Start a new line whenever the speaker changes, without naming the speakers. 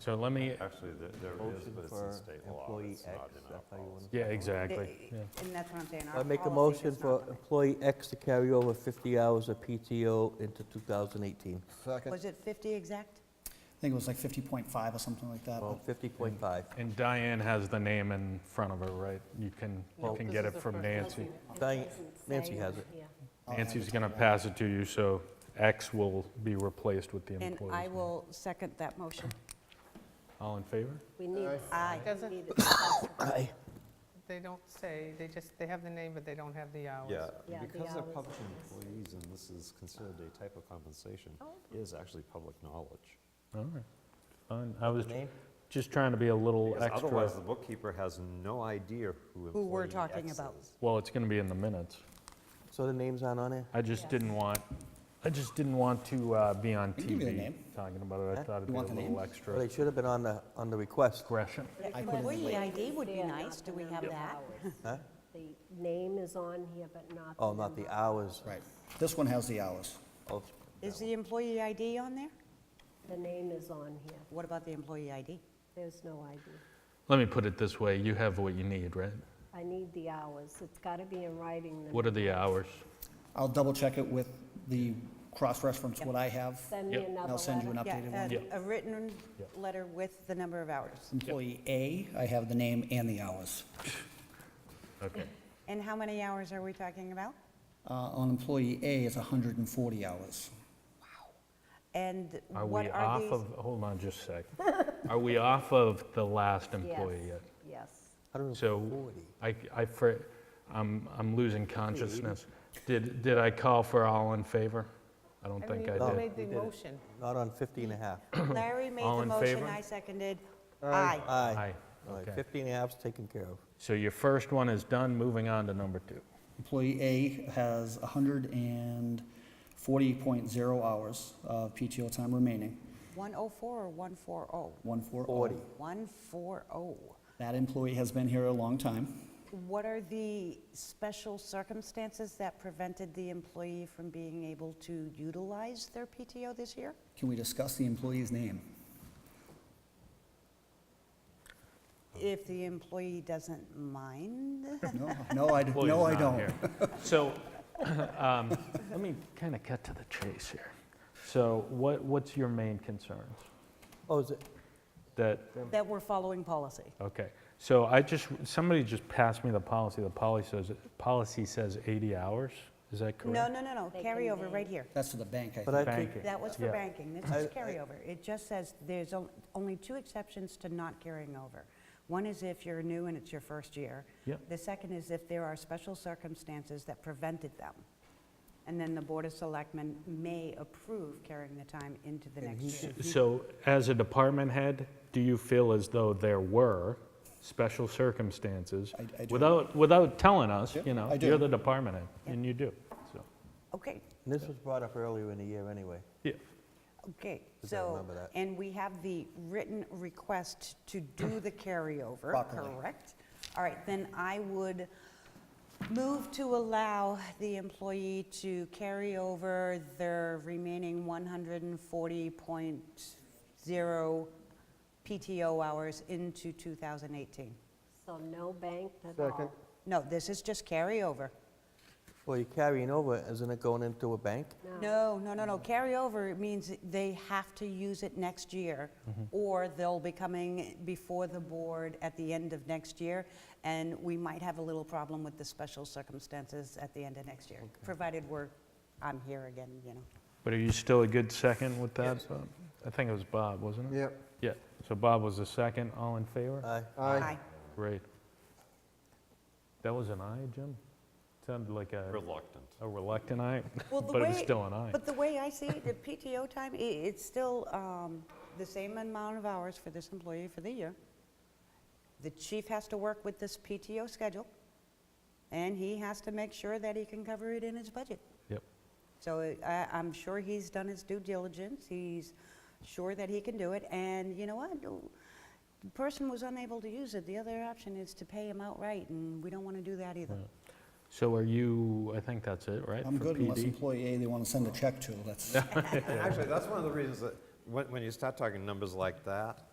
So let me,
Actually, there- there is,
Motion
but it's
for
in state law.
employee
It's not
X,
in our
that's how you
policy.
wanna-
yeah, exactly. yeah.
And that's what I'm saying.
I make a motion for employee X to carry over 50 hours of PTO into 2018.
Was it 50 exact?
I think it was like 50.5 or something like that.
Well,
but
50.5.
And Diane has the name in front of her, right? You can, you
Well-
can get it from Nancy.
Diane- Nancy has it.
I'll have
Nancy's
it.
going to pass it to you, so X will be replaced with the
And
employee's
I
name.
will second that motion.
All in favor?
We need.
Aye.
Doesn't-
need it.
Aye.
They don't say, they just, they have the name, but they don't have the uh, hours.
Yeah,
Yeah,
the
because they're
hours.
public employees and this is considered a type of compensation,
Oh.
it is actually public knowledge.
All right. Fine. I was
name?
just trying to be a little
Because
extra.
otherwise, the bookkeeper has no idea who
Who we're
employee
talking
X
about.
is.
Well, it's going to be in the minutes.
So the names aren't on there?
I just didn't want, I just didn't want to uh, be on
can give you the
TV
name.
talking about it. I
Huh?
thought it'd be
You
a
want the
little
name?
Well,
extra
they should have been on the, on the request.
aggression.
I put in the
Employee
link.
ID would be
They're
nice.
not
Do we
the
have
number of
that?
hours.
Huh?
The name is on here, but not.
Oh, not the
number.
hours.
Right. This one has the hours.
Oh,
Is the employee ID on there?
The name is on here.
What about the employee ID?
There's no ID.
Let me put it this way, you have what you need, right?
I need the hours. It's got to be in writing. the-
What are the hours?
I'll double check it with the cross-reference, what I have.
Send me
Yep.
another
I'll send you an
letter. uh,
Yeah,
updated
and
one.
Yeah.
A written
Yeah.
letter with the number of hours.
Employee A, I have the name and the hours.
Okay.
And how many hours are we talking about?
Uh, On employee A, it's 140 hours.
And
Are
what
we
are
off
these?
of, hold on just a sec. Are we off of the last employee
Yes,
yet?
Yes.
So
140.
I, I, fr- I'm, I'm losing consciousness. Did, did I call for all in favor? I don't think I
mean, you
Oh. did.
made the motion.
Not on 50 and a half.
Larry made
All
the
in
motion,
favor?
I seconded. Aye.
Aye.
Aye,
All right,
okay.
50 and a half's taken care of.
So your first one is done, moving on to number two.
Employee A has 140.0 hours of PTO time remaining,
104 or oh? 140?
140.
40.
140.
That employee has been here a long time.
What are the special circumstances that prevented the employee from being able to utilize their PTO this year?
Can we discuss the employee's name?
If the employee doesn't mind?
No, no, I,
Well,
no,
he's
I
not
don't.
here. So, um, let me kind of cut to the chase here. So what, what's your main concerns?
Oh, is it,
That,
That we're following policy.
okay, so I just, somebody just passed me the policy. The policy says, policy says 80 hours, is that correct?
No, no, no, no,
They can
carryover
name-
right here.
That's for the bank, I
but
think.
I think,
Banking.
That was for
Yeah.
banking, this
I-
is
I-
carryover. It just says there's on- only two exceptions to not carrying over. One is if you're new and it's your first year.
Yep.
The second is if there are special circumstances that prevented them. And then the Board of Selectmen may approve carrying the time into the next year.
So as a department head, do you feel as though there were special circumstances?
I- I do.
Without, without telling us, you know,
I do.
you're the department head, and you do, so,
Okay,
and this was brought up earlier in the year anyway.
yeah.
okay,
Just gotta
so,
remember that.
and we have the written request to do the carryover,
Properly.
correct? All right, then I would move to allow the employee to carry over their remaining 140.0 PTO hours into 2018.
So no bank at all.
No, this is just carryover.
Well, you're carrying over, isn't it going into a bank?
No, no, no, no, carryover means they have to use it next year,
Mm-hmm.
or they'll be coming before the board at the end of next year, and we might have a little problem with the special circumstances at the end of next year, provided we're, I'm here again, you know.
But are you still a good second with that? Bob? I think it was Bob, wasn't it?
Yep.
Yeah, so Bob was the second, all in
Uh.
favor?
Aye.
Aye.
Great. That was an aye, Jim? Sounded like a
Reluctant.
a reluctant aye,
Well, the
but it was
way-
still an aye.
But the way I see it, the PTO time, i- it's still um, the same amount of hours for this employee for the year. The chief has to work with this PTO schedule, and he has to make sure that he can cover it in his budget.
Yep.
So uh, I, I'm sure he's done his due diligence, he's sure that he can do it, and you know what? The person was unable to use it, the other option is to pay him outright, and we don't want to do that either.
So are you, I think that's it, right?
I'm
for
good unless
PD?
employee A, they want to send a check to, that's.
Actually, that's one of the reasons that, when, when you start talking numbers like that,